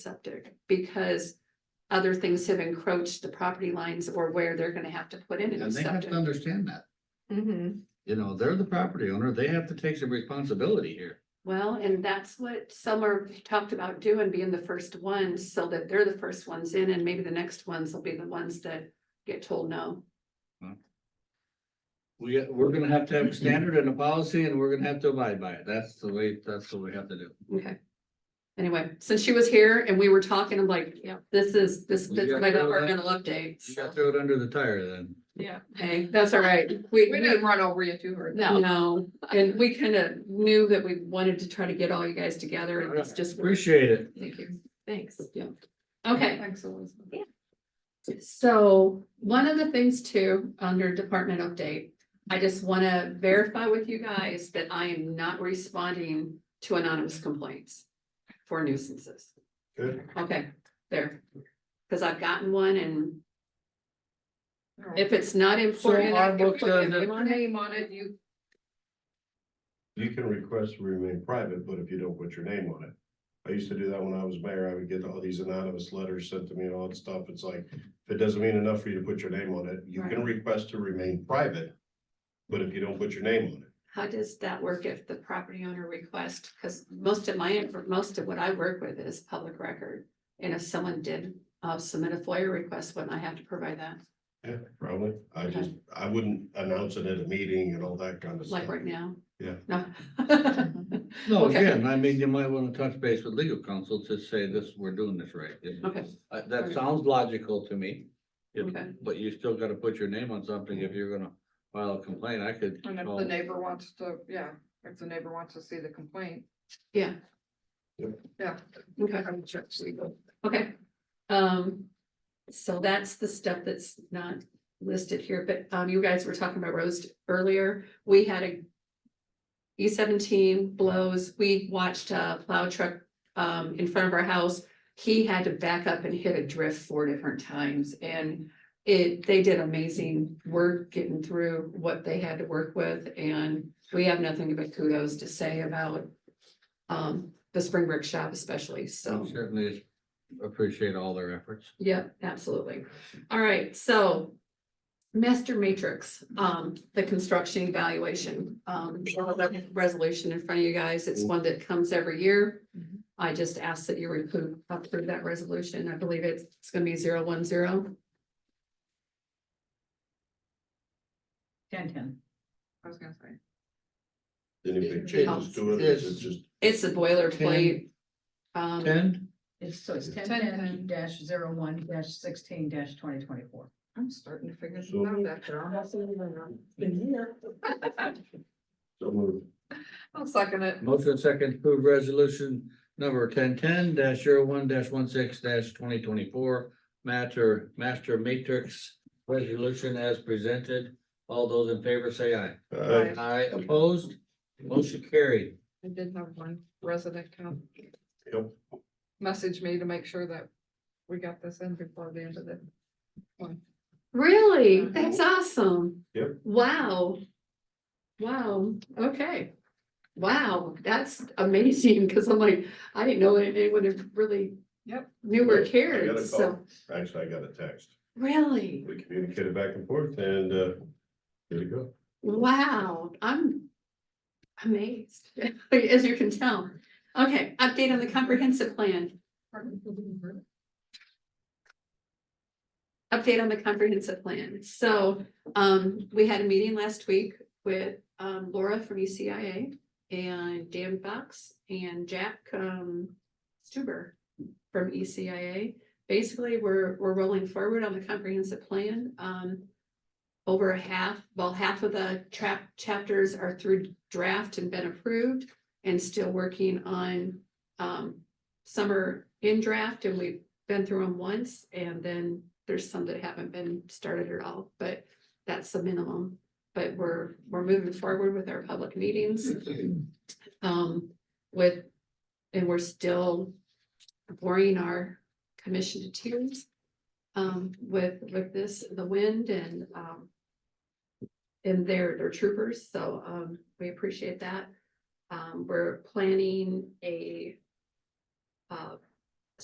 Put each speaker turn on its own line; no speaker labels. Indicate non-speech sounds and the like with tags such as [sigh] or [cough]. septic because other things have encroached the property lines or where they're gonna have to put in a new
And they have
septic.
to understand that,
Mhm.
you know, they're the property owner, they have to take some responsibility here.
Well, and that's what some are talked about doing, being the first ones, so that they're the first ones in, and maybe the next ones will be the ones that get told no.
We, we're gonna have to have a standard and a policy and we're gonna have to abide by it, that's the way, that's what we have to do.
Okay. Anyway, since she was here and we were talking, I'm like, yeah, this is, this,
You
this is
got
my
through that?
departmental update.
You gotta
so,
throw it under the tire then.
Yeah,
Hey, that's all right. We,
we
we
didn't run over you too hard.
No, no, and we kind of knew that we wanted to try to get all you guys together and it's just.
Appreciate it.
[laughs] Thank you.
Thanks.
Yeah. Okay,
Thanks, Elizabeth.
so one of the things too, under department update, I just want to verify with you guys that I am not responding to anonymous complaints for nuisances.
Good.
Okay, there. Because I've gotten one and
All right.
if it's not
So
important. I can
our book
put my
says
name
that,
Your
on it.
name on it, [laughs] you,
You can request to remain private, but if you don't put your name on it. I used to do that when I was mayor. I would get all these anonymous letters sent to me and all that stuff. It's like, if it doesn't mean enough for you to put your name on it, you can request to remain private. But if you don't put your name on it,
How does that work if the property owner requests? Because most of my, most of what I work with is public record. And if someone did uh, submit a FOIA request, wouldn't I have to provide that,
yeah, probably. I just, I wouldn't announce it at a meeting and all that kind of stuff.
like right now?
Yeah.
No. [laughs]
No,
Okay.
again, I mean, you might wanna touch base with legal counsel to say this, we're doing this right. you know.
Okay,
Uh, that sounds logical to me. If-
Okay.
But you still gotta put your name on something if you're gonna file a complaint, I could.
and if
call-
the neighbor wants to, yeah, if the neighbor wants to see the complaint,
yeah.
Yep.
Yeah.
Okay,
I'm just legal.
okay. Um, so that's the stuff that's not listed here, but um, you guys were talking about Rose earlier. We had a E seventeen blows, we watched a plow truck um in front of our house. He had to back up and hit a drift four different times and it, they did amazing work getting through what they had to work with and we have nothing but kudos to say about um the Spring Brick Shop especially,
Oh,
so.
Certainly appreciate all their efforts.
Yeah, absolutely. All right, so. Master matrix, um, the construction evaluation, um, we have a resolution in front of you guys. It's one that comes every year.
Mm-hmm.
Mhm.
I just ask that you approve, approve that resolution. I believe it's, it's gonna be zero one zero.
Ten, ten. I was gonna say.
Any big changes to it, it's just,
It's a boilerplate. Um,
Ten,
It's, so it's ten
1010.
ten dash zero one dash sixteen dash twenty twenty-four.
I'm starting to figure this
So-
out after almost a year.
so moved.
I'll second it.
motion second, to approve resolution number ten ten dash zero one dash one six dash twenty twenty-four. Matter, master matrix resolution as presented. All those in favor say aye.
Aye.
Aye opposed, motion carried.
I did have one resident come
Yep.
message me to make sure that we got this in before the end of the.
really? That's awesome.
Mm-hmm. Yep.
Wow. Wow, okay. Wow, that's amazing, because I'm like, I didn't know anyone had really.
Yep.
Knew or
I got
cared,
a
so.
call. Actually, I got a text.
Really?
We communicated back and forth and, uh, there you go.
Wow, I'm amazed, [laughs] as you can tell. Okay, update on the comprehensive plan, update on the comprehensive plan. So, um, we had a meeting last week with, um, Laura from ECIA and Dan Fox and Jack, um, Stuber from E ECIA. Basically, we're, we're rolling forward on the comprehensive plan. Um, over a half, well, half of the trap chapters are through draft and been approved and still working on um some are in draft and we've been through them once and then there's some that haven't been started at all, but that's the minimum. But we're we're moving forward with our public meetings um with and we're still boring our commission to tears um with with this, the wind and um and their their troopers, so um we appreciate that. Um, we're planning a uh,